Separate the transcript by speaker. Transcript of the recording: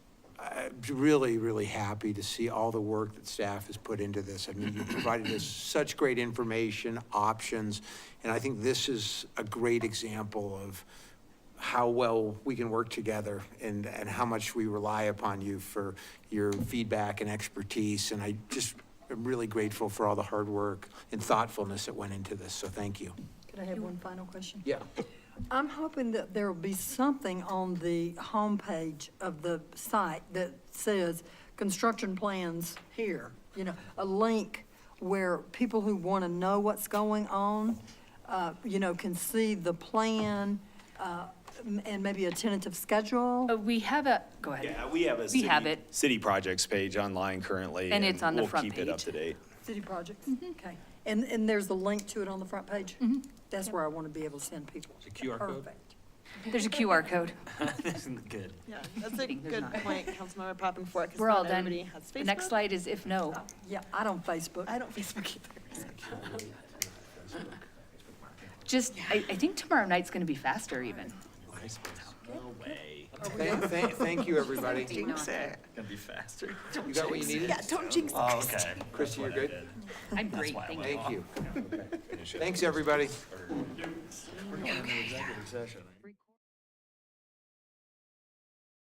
Speaker 1: really, really happy to see all the work that staff has put into this. I mean, you provided us such great information, options, and I think this is a great example of how well we can work together and, and how much we rely upon you for your feedback and expertise. And I just am really grateful for all the hard work and thoughtfulness that went into this, so thank you.
Speaker 2: Could I have one final question?
Speaker 1: Yeah.
Speaker 2: I'm hoping that there will be something on the homepage of the site that says, construction plans here. You know, a link where people who want to know what's going on, uh, you know, can see the plan, uh, m- and maybe a tentative schedule.
Speaker 3: Oh.
Speaker 4: Uh, We have a, go ahead.
Speaker 5: Yeah, we have a.
Speaker 4: We have
Speaker 5: city-
Speaker 4: it.
Speaker 5: City projects page online currently.
Speaker 4: And it's on the front
Speaker 5: We'll keep it up
Speaker 4: page.
Speaker 5: to date.
Speaker 2: City projects,
Speaker 3: Mm-hmm.
Speaker 2: okay. And, and there's a link to it on the front page? That's where I want to be able to send people.
Speaker 6: It's a QR code?
Speaker 2: Perfect.
Speaker 4: There's a QR code.
Speaker 6: Good.
Speaker 3: Yeah, that's a
Speaker 4: There's
Speaker 3: good
Speaker 4: not.
Speaker 3: point, Councilmember Poppenfort, because
Speaker 4: We're all
Speaker 3: not
Speaker 4: done.
Speaker 3: everybody has
Speaker 4: The
Speaker 3: Facebook.
Speaker 4: next slide is if no.
Speaker 2: Yeah, I don't Facebook.
Speaker 3: I don't Facebook either.
Speaker 4: Just, I, I think tomorrow night's going to be faster even.
Speaker 6: No way.
Speaker 1: Thank, thank, thank you, everybody.
Speaker 3: Jinx it.
Speaker 6: Gonna be faster.
Speaker 1: You got what you needed?
Speaker 3: Yeah, don't jinx it.
Speaker 6: Oh, okay.
Speaker 1: Christie, you're good?
Speaker 4: I'm great, thank you.
Speaker 1: Thank you. Thanks, everybody.
Speaker 6: We're going into executive session.